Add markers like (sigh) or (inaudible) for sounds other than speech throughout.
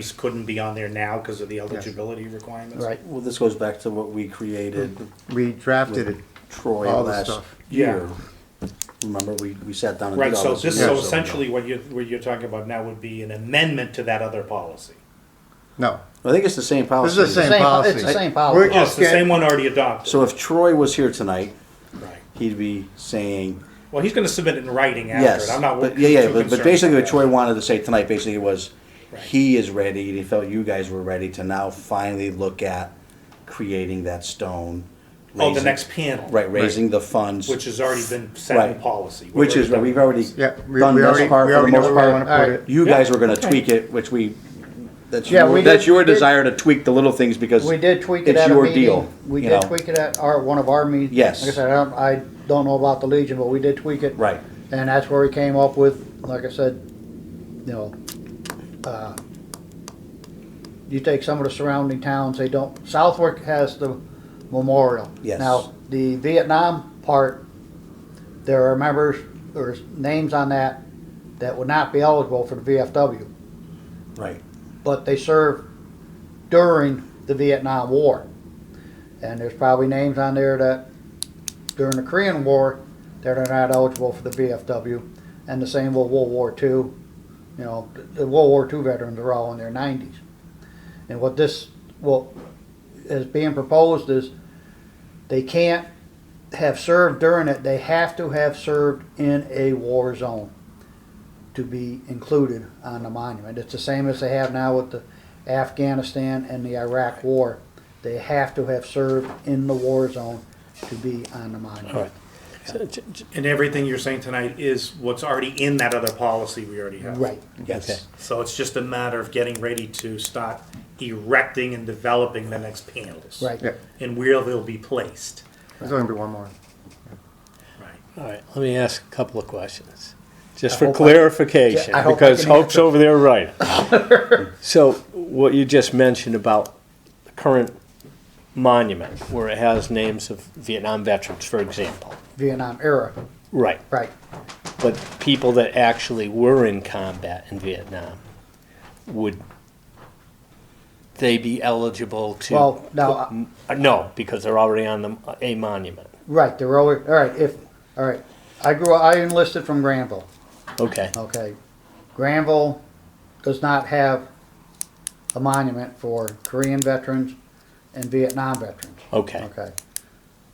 These couldn't be on there now because of the eligibility requirements. Right, Well, this goes back to what we created we drafted it, with Troy all the last stuff. year. Remember, we, we sat down and did Right, so all this. this, Yeah. so essentially what you're, what you're talking about now would be an amendment to that other policy. no, I think it's the same this policy. is the same Same po- policy. it's the same We're policy. Oh, it's just the same getting, one already adopted, So if Troy was here tonight, right. he'd be saying, Well, he's gonna submit it in writing after yes. it, I'm not But, too yeah, concerned. yeah, but, but basically about what that. Troy wanted to say tonight basically was, Right. he is ready, and he felt you guys were ready to now finally look at creating that stone. Oh, the raising- next panel. Right, raising the funds. Which has already been set in Right. policy. We've Which already is, done we've that. already yeah, we we done already, this we part for the already know most where we part. wanna put it. You Yeah. guys were gonna tweak it, which we, that's Yeah, your, we that's did- your did- desire to tweak the little things because. We did tweak it it's at a your deal, meeting. We you did know. tweak it at our, one of our meetings. Yes. Like I said, I don't, I don't know about the Legion, but we did tweak it. Right. And that's where we came up with, like I said, you know, uh, you take some of the surrounding towns, they don't, Southwick has the memorial. Yes. Now, the Vietnam part, there are members, or names on that, that would not be eligible for the VFW. Right, but they served during the Vietnam War. And there's probably names on there that during the Korean War that are not eligible for the VFW, and the same with World War II. You know, the- the World War II veterans are all in their 90s. And what this, what is being proposed is they can't have served during it, they have to have served in a war zone to be included on the monument. It's the same as they have now with the Afghanistan and the Iraq War. They have to have served in the war zone to be on the monument. And everything you're saying tonight is what's already in that other policy we already have. Right. yes. So it's just a matter of getting ready to start erecting and developing the next panels. Right. Yeah, And where they'll be placed. there's only gonna be one more. Right. All right, let me ask a couple of questions, just hope for I- clarification, Yeah, I hope I because can answer. Hope's over there right. (laughs) So what you just mentioned about the current monument, where it has names of Vietnam veterans, for example. Vietnam era. Right, Right. but people that actually were in combat in Vietnam, would they be eligible to? Well, no, I- Uh, No, because they're already on the, a monument. right. They're always, all right. If, all right. I grew, I enlisted from Granville. Okay, Okay. Granville does not have a monument for Korean veterans and Vietnam veterans. okay, Okay.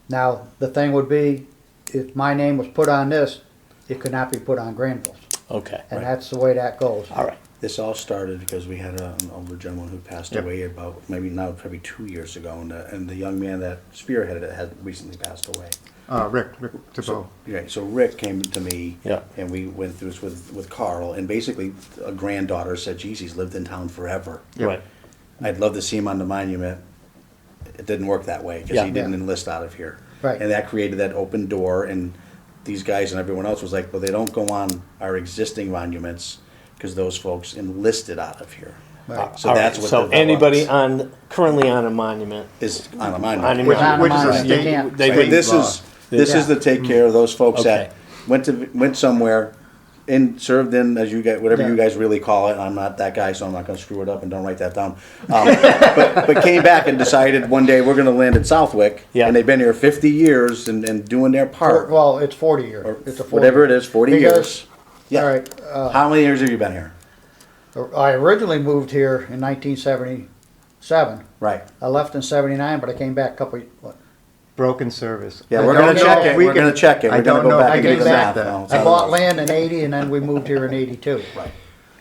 Now, the thing would be, if my name was put on this, it could not be put on Granville's. okay, And that's the way that goes. all right. This all started because we had a- an older gentleman who passed Yep. away about, maybe now, probably two years ago, and the, and the young man that spearheaded it had recently passed away. Uh, Rick, Rick DeBoe. Right, so Rick came to me. Yeah. And we went through this with, with Carl, and basically, a granddaughter said, geez, he's lived in town forever. Yeah. Right. I'd love to see him on the monument. It didn't work that way because Yeah. he didn't Yeah. enlist out of here. Right. And that created that open door, and these guys and everyone else was like, well, they don't go on our existing monuments because those folks enlisted out of here. Right. So All that's right, what So developed anybody on, currly on a monument, is on a on a monument. Which, Not a which is a monument, you state. can't. They- But this law. is this is Yeah. to take care of those folks Okay. that went to went somewhere and served in as you guys whatever you Yeah. guys really call it. I'm not that guy, so I'm not going to screw it up and don't write that down. Um, but, but came back and decided one day we're going to land in Southwick, Yeah. and they've been here 50 years and, and doing their part, Well, it's forty year. It's a forty. whatever it is, 40 Because- years. Yeah. All right, uh, How many years have you been here? I originally moved here in nineteen seventy-seven. Right. I left in seventy-nine, but I came back a couple, of- what, Broken service. Yeah, I we're don't gonna know check if it. we We're can- gonna check it. I We're gonna don't go know if back I and can do the math back that. now. I bought land in eighty and then we moved here in eighty-two. Right.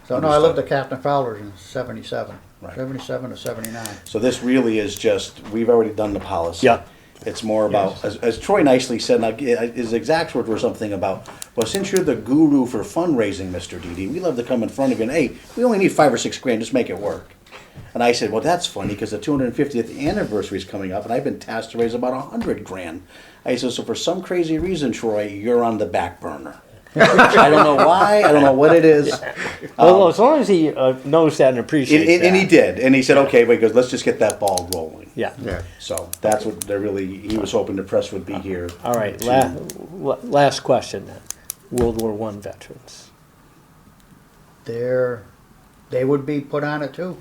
So no, I lived Understood. at Captain Fowler's in seventy-seven. Right. Seventy-seven to seventy-nine. So this really is just, we've already done the policy. Yeah. It's more about, as, as Troy nicely said, and I- his exact words were something about, well, since you're the guru for fundraising, Mr. Didi, we love to come in front of you and, hey, we only need five or six grand, just make it work. And I said, well, that's funny because the 250th anniversary is coming up and I've been tasked to raise about a hundred grand. I said, so for some crazy reason, Troy, you're on the back burner. (laughs) I don't know why, I don't know what it is. Well, as long as he uh, knows that and um, appreciates And, and- and he that. did, and he said, okay, but he goes, let's just get that ball rolling. Yeah. Yeah, So that's what they're really, he was hoping the press would be here. Uh, All right. to- La- la- last question then. World War One veterans. They're, they would be put on it too.